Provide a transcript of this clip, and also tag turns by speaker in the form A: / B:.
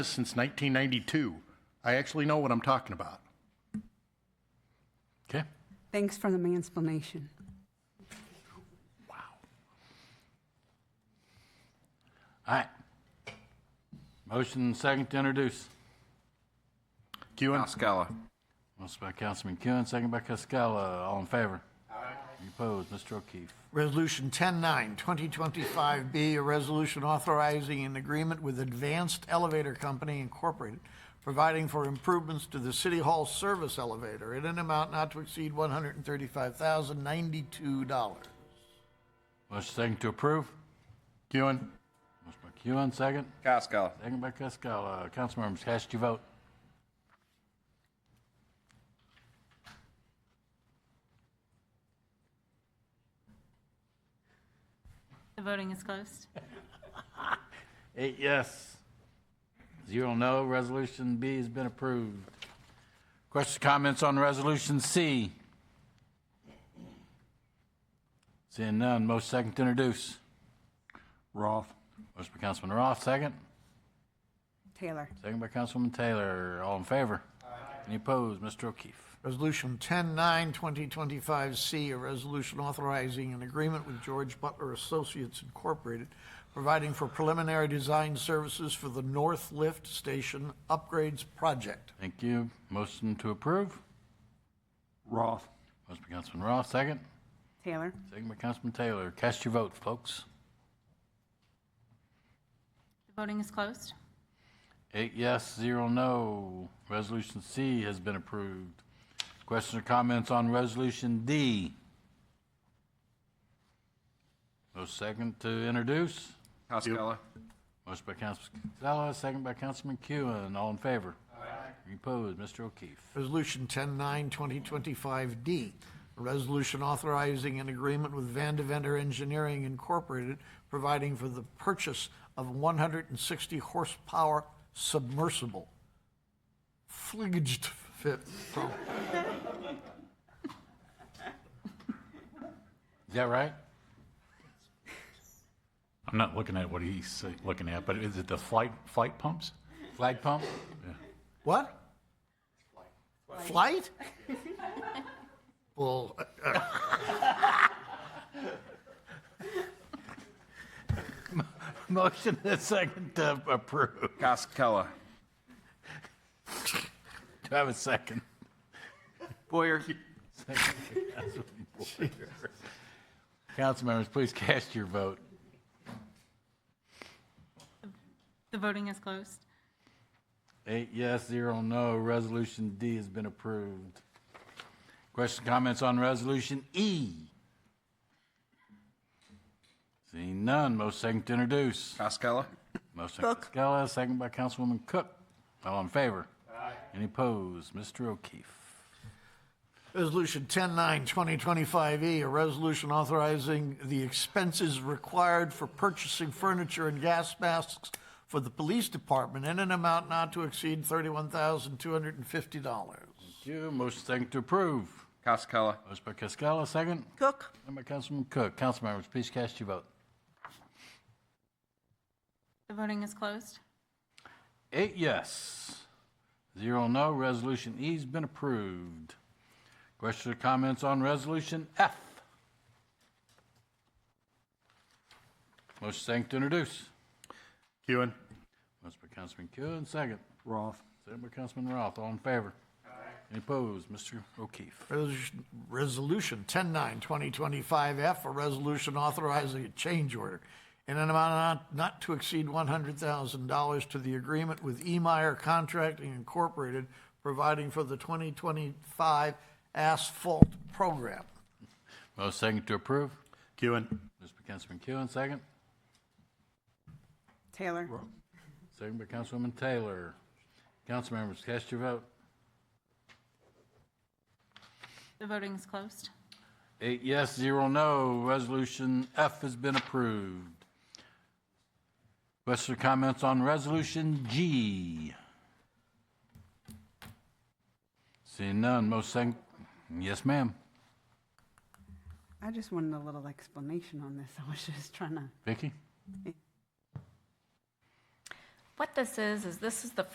A: since 1992. I actually know what I'm talking about. Okay?
B: Thanks for the mansplanation.
C: All right. Motion second to introduce.
A: Kewen?
D: Cascala.
C: Motion by Councilman Kuhn, second by Cascola. All in favor? Aye. Any opposed? Mr. O'Keefe.
E: Resolution 109, 2025B, a resolution authorizing an agreement with Advanced Elevator Company Incorporated, providing for improvements to the City Hall service elevator in an amount not to exceed $135,092.
C: Motion second to approve.
A: Kewen?
C: Motion by Kuhn, second.
D: Cascala.
C: Second by Cascola. Councilmembers, cast your vote.
F: The voting is closed.
C: Eight yes. Zero no. Resolution B has been approved. Questions, comments on Resolution C? Seeing none, motion second to introduce.
A: Roth?
C: Motion by Councilman Roth, second.
B: Taylor,
C: Second by Councilman Taylor. All in favor? Any opposed? Mr. O'Keefe.
E: Resolution 109, 2025C, a resolution authorizing an agreement with George Butler Associates Incorporated, providing for preliminary design services for the North Lift Station Upgrades Project.
C: Thank you. Motion to approve.
A: Roth.
C: Motion by Councilman Roth, second.
B: Taylor,
C: Second by Councilman Taylor. Cast your vote, folks.
F: The voting is closed.
C: Eight yes, zero no. Resolution C has been approved. Questions or comments on Resolution D? No second to introduce.
D: Cascala.
C: Motion by Councilman Casella, second by Councilman Kewin. All in favor? Aye. Any opposed? Mr. O'Keefe.
E: Resolution 109-2025D, a resolution authorizing an agreement with Van Deventer Engineering Incorporated, providing for the purchase of 160 horsepower submersible. Fligged fit.
C: Is that right?
G: I'm not looking at what he's uh, looking at, but is it the flight, flight pumps?
C: Flag pump?
E: What? Flight? Well,
C: Motion and second to approve.
D: Cascala.
C: Do I have a second?
D: Boyer.
C: Council members, please cast your vote.
F: The voting is closed.
C: Eight yes, zero no. Resolution D has been approved. Questions, comments on Resolution E? Seeing none, most second to introduce.
D: Cascala.
C: Motion by Scala, second by Councilwoman Cook. All in favor? Aye. Any opposed? Mr. O'Keefe.
E: Resolution 109, 2025E, E, a resolution authorizing the expenses required for purchasing furniture and gas masks for the police department in an amount not to exceed $31,250.
C: Thank you. Motion second to approve.
D: Cascala.
C: Motion by Cascola, second.
B: Cook,
C: Second by Councilman Cook. Council members, please cast your vote.
F: The voting is closed.
C: Eight yes, zero no. Resolution E's been approved. Questions or comments on Resolution F? Motion second to introduce.
A: Kewen?
C: Motion by Councilman Kuhn, second.
A: Roth.
C: Second by Councilman Roth. All in favor? Any opposed? Mr. O'Keefe.
E: Resolution- Resolution 109, 2025F, a resolution authorizing a change order in an amount not- not to exceed $100,000 to the agreement with Emeyer Contracting Incorporated, providing for the 2025 asphalt program.
C: Motion second to approve.
A: Kewen?
C: Motion by Councilman Kuhn, second.
B: Taylor,
C: Second by Councilwoman Taylor. Council members, cast your vote.
F: The voting is closed.
C: Eight yes, zero no. Resolution F has been approved. Questions or comments on Resolution G? Seeing none, most second, yes, ma'am.
B: I just wanted a little explanation on this. I was just trying to,
C: Vicky?
H: What this is, is this is the